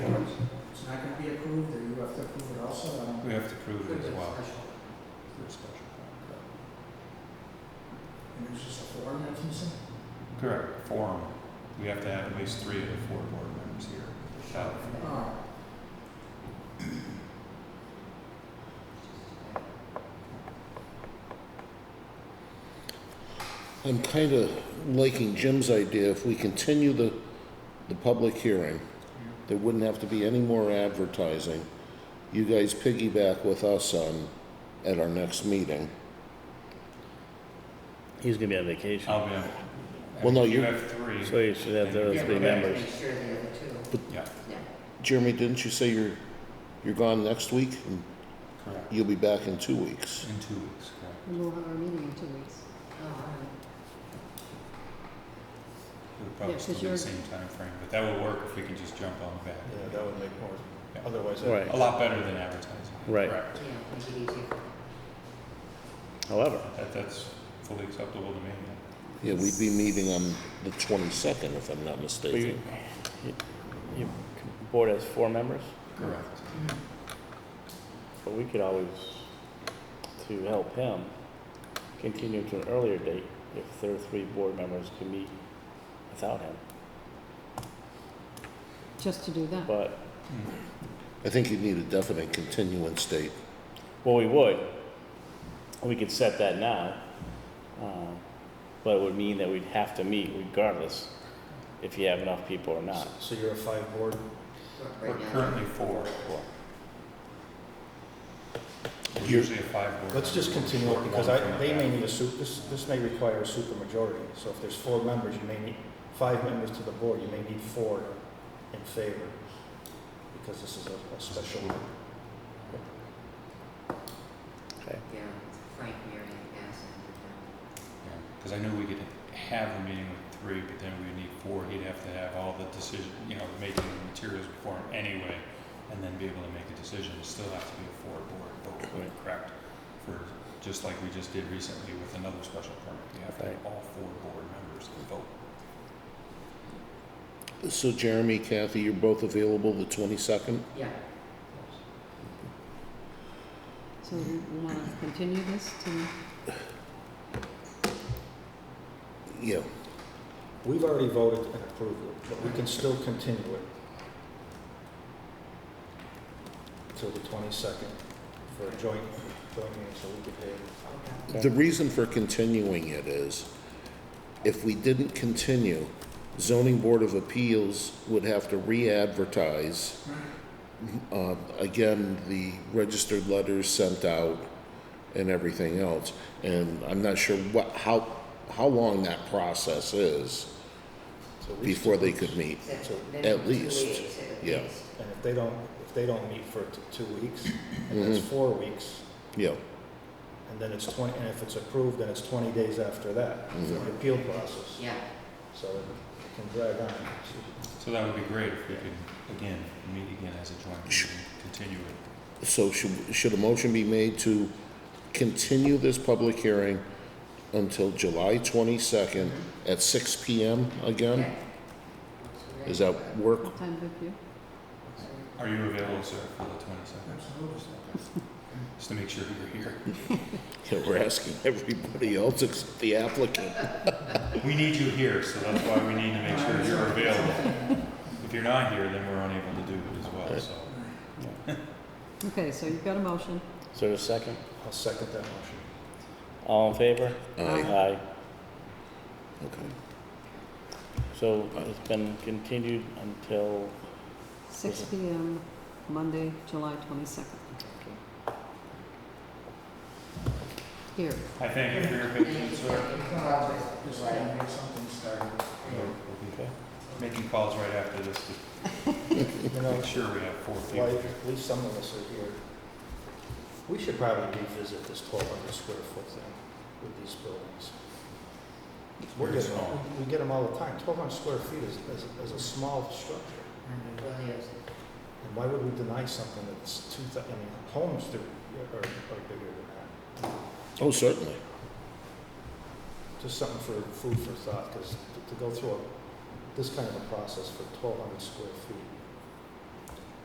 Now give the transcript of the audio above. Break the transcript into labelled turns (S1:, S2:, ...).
S1: not gonna be approved, or you have to approve it also, I don't.
S2: We have to prove it as
S1: It's
S2: well.
S1: special.
S2: for a special permit.
S1: And there's just a form that's missing?
S2: Correct, forum. We have to have at least three of the four board members here. Shout out.
S1: Oh,
S3: I'm kind of liking Jim's idea, if we continue the, the public hearing, there wouldn't have to be any more advertising. You guys piggyback with us on, at our next meeting.
S4: He's gonna be on vacation,
S2: I'll be on.
S3: Well, no,
S2: You
S3: you-
S2: have three.
S4: so he should have those
S2: Yeah,
S4: three
S2: okay.
S4: members.
S5: Make sure the other two,
S2: Yeah,
S5: yeah.
S3: Jeremy, didn't you say you're, you're gone next week? and
S2: correct.
S3: You'll be back in two weeks.
S2: In two weeks, correct.
S6: And we'll have our meeting in two weeks.
S5: Oh, all
S2: It'll probably
S6: Yeah, 'cause
S2: still be the
S6: you're-
S2: same time frame, but that would work if we can just jump on the back.
S7: Yeah, that would make more,
S2: Yeah.
S7: otherwise,
S4: Right.
S7: that-
S2: A lot better than advertising.
S4: Right.
S2: Correct.
S5: right. yeah, make it easier.
S4: However,
S2: That, that's fully acceptable to me. yeah.
S3: Yeah, we'd be meeting on the 22nd, if I'm not
S4: we,
S3: mistaken.
S4: you, you- board has four members,
S2: Correct.
S1: Mm-hmm.
S4: but we could always, to help him, continue to an earlier date if their three board members can meet without him.
S6: Just to do that.
S4: But,
S2: Mm.
S3: I think you need a definite continuance date.
S4: well, we would, we could set that now, um, but it would mean that we'd have to meet regardless if you have enough people or not.
S7: so you're a five board,
S5: Work
S2: We're
S5: right now.
S2: currently four. We're
S3: You're-
S2: Usually a five board.
S7: let's just
S2: member,
S7: continue it,
S2: one
S7: because I,
S2: from the
S7: they may
S2: back.
S7: need a su, this, this may require a super majority. So if there's four members, you may need, five members to the board, you may need four in favor, because this is a, a special.
S4: Okay.
S5: Yeah, Frank, Mary, and Bass, and
S2: Because I knew we could have a meeting with three, but then we need four, he'd have to have all the decision, you know, making the materials before him anyway, and then be able to make a decision, it still have to be a four board vote, would it correct? For, just like we just did recently with another special permit, you have to have all four board members to vote.
S3: So Jeremy, Kathy, you're both available the 22nd?
S5: yeah.
S6: So we want to continue this to,
S3: Yeah,
S7: We've already voted and approved it, but we can still continue it till the twenty-second for a joint, joint meeting, so we could pay.
S5: Okay.
S3: The reason for continuing it is, if we didn't continue, zoning board of appeals would have to re-advertise. Uh, again, the registered letters sent out and everything else, and I'm not sure what, how, how long that process is
S7: So we-
S3: before they could meet.
S5: Is that
S7: So,
S5: minimum two
S3: least,
S5: weeks at
S3: yeah.
S5: least?
S7: And if they don't, if they don't meet for t- two weeks, and that's
S3: Mm-hmm.
S7: four weeks,
S3: Yeah,
S7: and then it's twenty, and if it's approved, then it's twenty days after that, for
S3: Mm-hmm.
S7: the appeal process.
S5: Yeah,
S7: So it can drag on.
S2: So that would be great if we could, again, meet again as a joint meeting, continue it.
S3: so should, should a motion be made to continue this public hearing until July twenty-second at six P M
S5: yeah.
S3: again? Does that work
S6: what time with you?
S2: Are you available, sir, for the twenty-second?
S1: absolutely.
S2: Just to make sure you're here.
S3: Yeah, we're asking everybody else except the applicant.
S2: We need you here, so that's why we need to make sure you're available. If you're not here, then we're unable to do it as well, so.
S6: Okay, so you've got a motion.
S4: Is there a second?
S7: I'll second that motion.
S4: All in favor?
S3: Aye.
S4: Aye.
S3: Okay.
S4: So it's been continued until,
S6: Six P M, Monday, July twenty-second. Here,
S2: I thank you for your patience, sir.
S1: Just like I make something started.
S4: okay,
S2: Making calls right after this to
S7: You know,
S2: make sure we have four
S7: why,
S2: people.
S7: at least some of us are here. We should probably revisit this twelve hundred square foot thing with these buildings. We're
S2: Very
S7: getting,
S2: small.
S7: we get them all the time. Twelve hundred square feet is, is, is a small structure.
S5: And Williams,
S7: And why would we deny something that's two, thou- I mean, homes do- are, are bigger than that.
S3: Oh, certainly.
S7: Just something for food for thought, because to go through a- this kind of a process for twelve hundred square feet